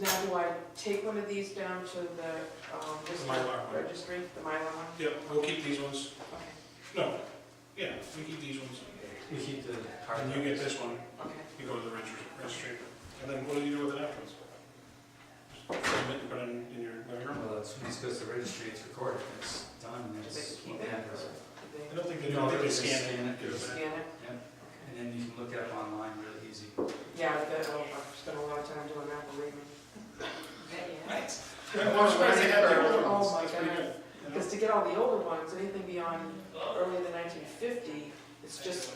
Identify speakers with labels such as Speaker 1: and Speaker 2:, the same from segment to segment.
Speaker 1: now do I take one of these down to the um, district
Speaker 2: Mylar one.
Speaker 1: registry, the Mylar one?
Speaker 2: Yeah, we'll keep these ones.
Speaker 1: Okay,
Speaker 2: No, yeah, we keep these ones.
Speaker 3: You keep the hard
Speaker 2: And you get this one,
Speaker 1: okay.
Speaker 2: you go to the registry, registry. And then what do you do with it afterwards? Frame it and put it in in your living room?
Speaker 3: Well, as soon as it goes to registry, it's recorded, it's done, and
Speaker 1: Do
Speaker 3: it's.
Speaker 1: they keep it or do
Speaker 2: I
Speaker 1: they
Speaker 2: don't think they do,
Speaker 3: No,
Speaker 2: I think
Speaker 3: they
Speaker 2: they
Speaker 3: just
Speaker 2: scan
Speaker 3: scan
Speaker 2: it.
Speaker 3: it.
Speaker 2: give it back.
Speaker 1: scan it?
Speaker 3: And then you can look it up online really easy.
Speaker 1: Yeah, I've got- oh, I've spent a lot of time doing that, believe me.
Speaker 3: Right.
Speaker 2: Yeah, well, it's what they have there,
Speaker 1: Oh,
Speaker 2: it's-
Speaker 1: my
Speaker 2: it's pretty good, you know?
Speaker 1: Because to get all the older ones, anything beyond early the nineteen fifty, it's just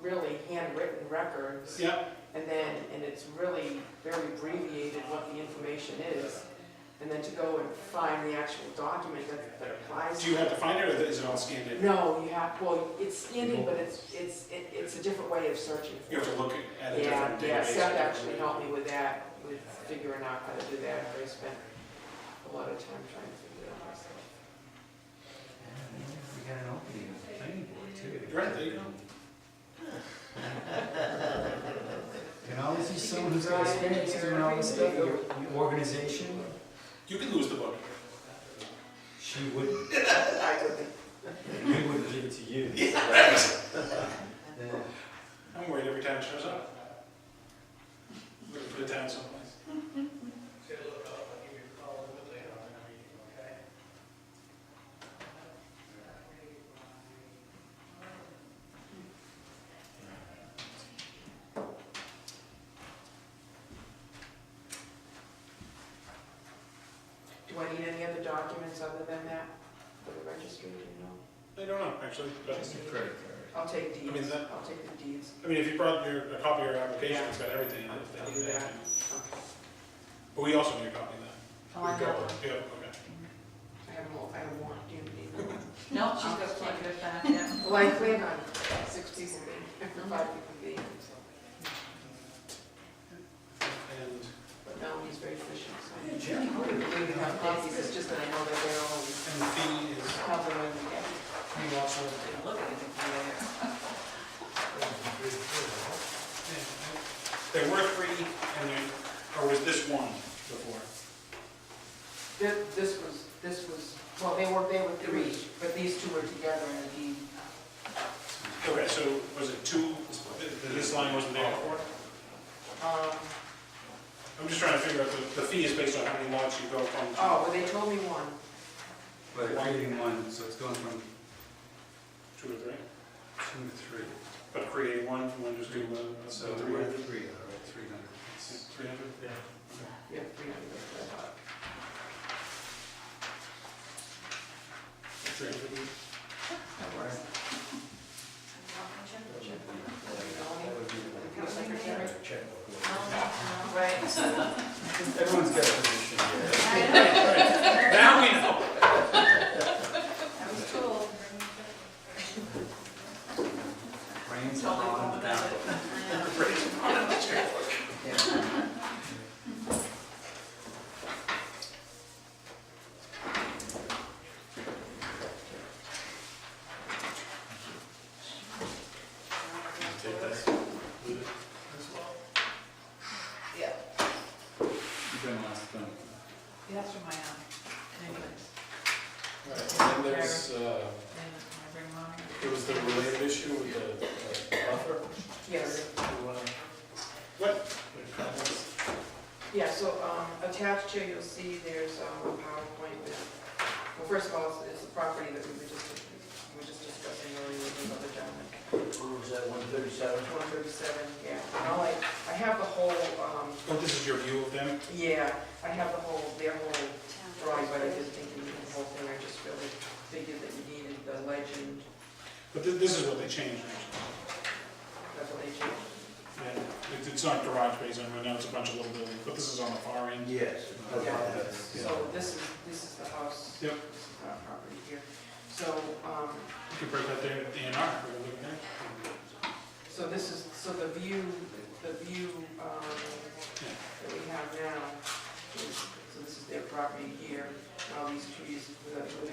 Speaker 1: really handwritten records.
Speaker 2: Yeah,
Speaker 1: And then, and it's really very abbreviated what the information is. And then to go and find the actual document that that applies.
Speaker 2: do you have to find it or is it all scanned in?
Speaker 1: No, you have, well, it's skinny, but it's, it's, it- it's a different way of searching. for
Speaker 2: You have
Speaker 1: it.
Speaker 2: to look at a
Speaker 1: Yeah,
Speaker 2: different database.
Speaker 1: yeah, Seth actually helped me with that, with figuring out how to do that, I spent a lot of time trying to figure it out myself.
Speaker 3: We got an opening in the planning board too.
Speaker 2: Right, there you go.
Speaker 3: Can always use someone who's got experience doing all this stuff, your your organization,
Speaker 2: You can lose the book.
Speaker 3: she wouldn't,
Speaker 1: I would
Speaker 3: we wouldn't give it to you. Yeah.
Speaker 2: I'm worried every time it shows up. Looking for the town someplace.
Speaker 1: Do I need any other documents other than that for the registry, do you know?
Speaker 2: I don't know, actually, but,
Speaker 3: Just your credit card.
Speaker 1: I'll take
Speaker 2: mean,
Speaker 1: deeds,
Speaker 2: that-
Speaker 1: I'll take the deeds.
Speaker 2: I mean, if you brought your, a copy of your application, it's got everything in it.
Speaker 1: I'll do
Speaker 2: then-
Speaker 1: that.
Speaker 2: But we also need a copy of that.
Speaker 4: Oh, I know.
Speaker 2: Yeah, okay.
Speaker 1: I have more, I have more, do you need them?
Speaker 4: No, she's got plenty of time, yeah.
Speaker 1: Well, I plan on six people being,
Speaker 4: Uh-huh.
Speaker 1: five people being, so,
Speaker 2: And
Speaker 1: but no, he's very efficient, so. I would agree to have copies, it's just that I know that they're all
Speaker 2: And the fee is,
Speaker 1: covering the gap.
Speaker 2: you also,
Speaker 4: Didn't Look at it from
Speaker 2: there were three, and you, or was this one before?
Speaker 1: Thi- This was, this was, well, they were, they were three, but these two were together in the deed.
Speaker 2: Okay, so was it two, th- this line wasn't there before?
Speaker 1: Um,
Speaker 2: I'm just trying to figure out, the, the fee is based on how many lots you go from. to-
Speaker 1: Oh, well, they told me one.
Speaker 3: But it's reading one, so it's going from
Speaker 2: Two or three?
Speaker 3: two to three.
Speaker 2: But create one, if you want to just do one, so
Speaker 3: So
Speaker 2: three
Speaker 3: we're
Speaker 2: hundred.
Speaker 3: at three, all right, three hundred.
Speaker 2: Three hundred? Yeah.
Speaker 1: Yeah, three hundred.
Speaker 2: Three hundred.
Speaker 4: Right.
Speaker 3: Everyone's got a position here.
Speaker 2: Now we know.
Speaker 4: That was cool.
Speaker 3: Rain's
Speaker 4: Totally
Speaker 3: on
Speaker 4: wrong
Speaker 3: the
Speaker 4: about
Speaker 3: ballot.
Speaker 4: it.
Speaker 2: Take this.
Speaker 4: Yeah.
Speaker 3: You've been last one.
Speaker 4: That's from my, um, anyways.
Speaker 5: And then there's, uh,
Speaker 4: Then I bring mine.
Speaker 5: there was the related issue with the uh, buffer.
Speaker 1: Yes,
Speaker 5: You wanna-
Speaker 2: What?
Speaker 5: make comments?
Speaker 1: yeah, so um, attached here, you'll see there's um, a PowerPoint with, well, first of all, it's- it's the property that we were just, we were just discussing earlier with the other gentleman.
Speaker 6: What was that, one thirty-seven?
Speaker 1: One thirty-seven, yeah, and I'll like, I have the whole, um,
Speaker 2: Oh, this is your view of them?
Speaker 1: yeah, I have the whole, their whole drawing, but I didn't think you needed the whole thing, I just really figured that you needed the legend,
Speaker 2: But thi- this is what they changed, actually.
Speaker 1: that's what they changed.
Speaker 2: Yeah. It- It's not garage based on right now, it's a bunch of little buildings, but this is on the far end.
Speaker 6: Yes.
Speaker 1: So this is, this is the house.
Speaker 2: Yep.
Speaker 1: This is our property here. So, um,
Speaker 2: You could break that there, the A and R, we're looking there.
Speaker 1: so this is, so the view, the view, um, that we have now, is- so this is their property here, all these trees, with a- with a